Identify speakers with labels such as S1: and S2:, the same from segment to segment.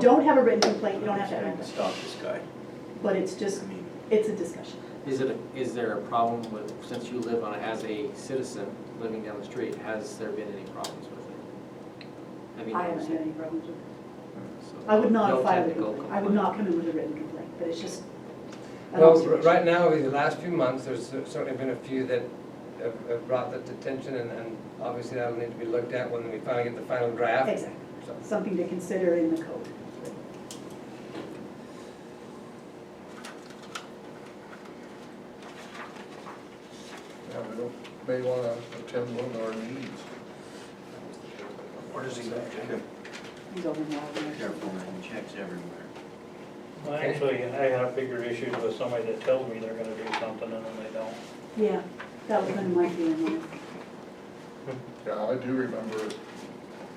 S1: Don't have a written complaint, you don't have to have it,
S2: Stop this guy.
S1: but it's just,
S2: I mean,
S1: it's a discussion.
S3: Is it, a- is there a problem with, since you live on, it as a citizen living down the street, has there been any problems with it? Have you
S1: I haven't
S3: noticed
S1: had
S3: it?
S1: any problems with it.
S3: So
S1: I would not
S3: no
S1: have filed a
S3: technical
S1: complaint, I would
S3: complaint.
S1: not come in with a written complaint, but it's just an
S4: Well, r-
S1: observation.
S4: right now, in the last few months, there's cer- certainly been a few that have have brought that to attention, and, and obviously that'll need to be looked at when we finally get the final draft.
S1: Exactly,
S4: So,
S1: something to consider in the code.
S5: Yeah, we don't, may wanna attend one of our meetings.
S2: What does he do?
S1: He's over now.
S2: Careful, man, checks everywhere.
S6: Well, Actually, I have bigger issues with somebody that tells me they're gonna do something and then they don't.
S1: Yeah, that was kind of my feeling.
S5: Yeah, I do remember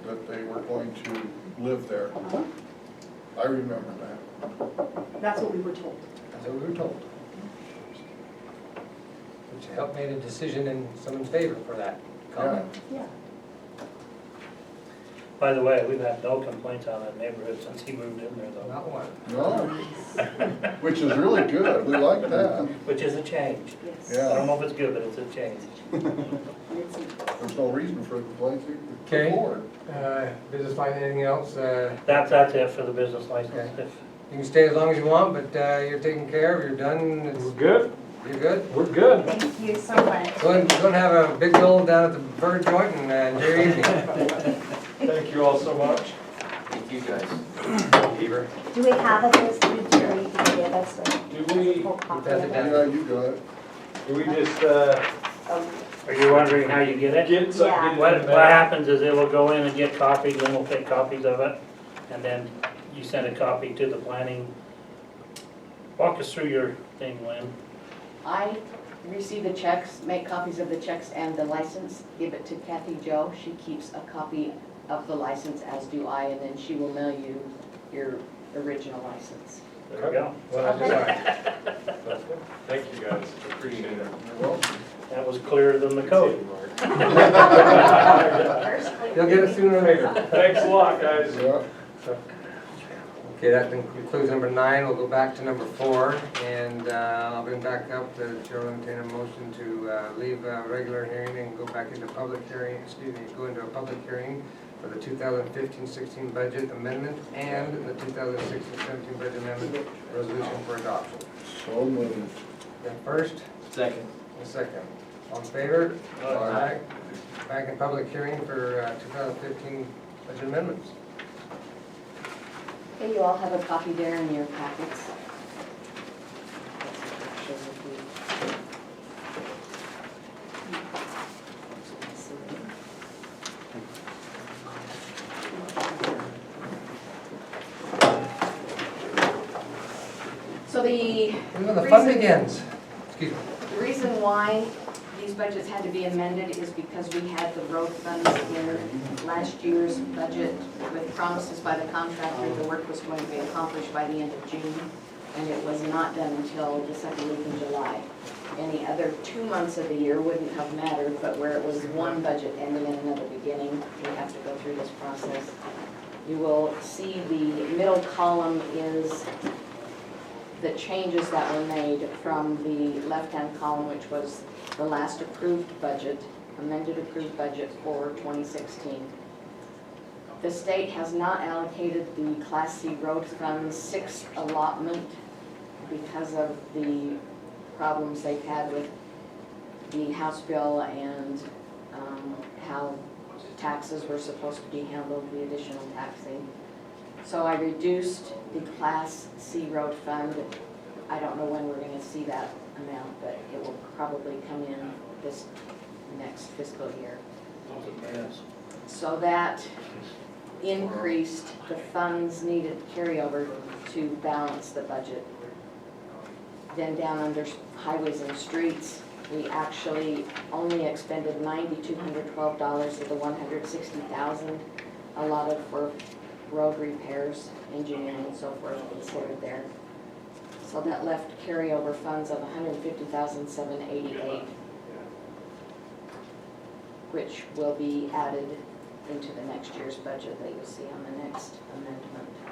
S5: that they were going to live there.
S1: Uh-huh.
S5: I remember that.
S1: That's what we were told.
S5: That's what we were told.
S4: Which helped made a decision in someone's favor for that
S5: Yeah,
S4: comment.
S1: Yeah.
S6: By the way, we've had no complaints out of that neighborhood since he moved in there though,
S4: Not one.
S5: no, which is really good, we like that.
S6: which is a change.
S1: Yes.
S6: I
S5: Yeah.
S6: don't know if it's good, but it's a change.
S1: It's a-
S5: There's no reason for a complaint to
S4: Okay.
S5: the board.
S4: Uh, Business line, anything else? Uh,
S6: That's, that's it for the business license.
S4: Okay.
S6: If-
S4: You can stay as long as you want, but uh, you're taken care of, you're done,
S7: We're
S4: it's-
S7: good,
S4: you're good.
S7: we're good.
S8: Thank you so much.
S4: Go ahead, go and have a big old down at the bird joint and uh, enjoy your evening.
S7: Thank you all so much.
S2: Thank you guys. Beaver.
S8: Do we have a list of jury to give us a
S7: Do we,
S8: full copy
S4: That's
S8: of
S4: it.
S8: it?
S5: Yeah, you got it.
S7: do we just, uh,
S8: Oh,
S6: Are you wondering how you get it?
S7: get something?
S6: What, what happens is it will go in and get copied, then we'll take copies of it, and then you send a copy to the planning. Walk us through your thing, Lynn.
S9: I receive the checks, make copies of the checks and the license, give it to Kathy Joe. She keeps a copy of the license, as do I, and then she will mail you your original license.
S6: There we go.
S4: Well, I'm sorry.
S7: Thank you guys, appreciate it.
S5: Well,
S6: That was clearer than the code.
S8: first clear.
S4: You'll get it sooner or later.
S7: Thanks a lot, guys.
S5: yeah,
S4: Okay, that concludes number nine. We'll go back to number four, and uh, I'll bring back up the chair will entertain a motion to uh, leave uh, regular hearing and go back into public hearing, excuse me, go into a public hearing for the 2015-16 budget amendment and the 2016-17 budget amendment resolution for adoption.
S5: so moved.
S4: The first,
S3: Second.
S4: the second. All in favor?
S5: Aye.
S4: Back in public hearing for uh, 2015 budget amendments.
S9: Okay, you all have a copy there in your packets. So the
S4: This is when the fun
S9: Reason-
S4: begins. Excuse me.
S9: The reason why these budgets had to be amended is because we had the road funds in last year's budget with promises by the contractor, the work was going to be accomplished by the end of June, and it was not done until the second week in July. Any other two months of the year wouldn't have mattered, but where it was one budget ending and another beginning, we have to go through this process. You will see the middle column is the changes that were made from the left-hand column, which was the last approved budget, amended approved budget for 2016. The state has not allocated the Class C road fund sixth allotment because of the problems they've had with the House bill and um, how taxes were supposed to be handled, the additional taxing. So I reduced the Class C road fund. I don't know when we're gonna see that amount, but it will probably come in this next fiscal year. So that increased the funds needed carryover to balance the budget. Then down under highways and streets, we actually only expended ninety-two hundred twelve dollars of the one hundred sixty thousand allotted for road repairs, engineering and so forth considered there. So that left carryover funds of $150,788, which will be added into the next year's budget that you'll see on the next amendment.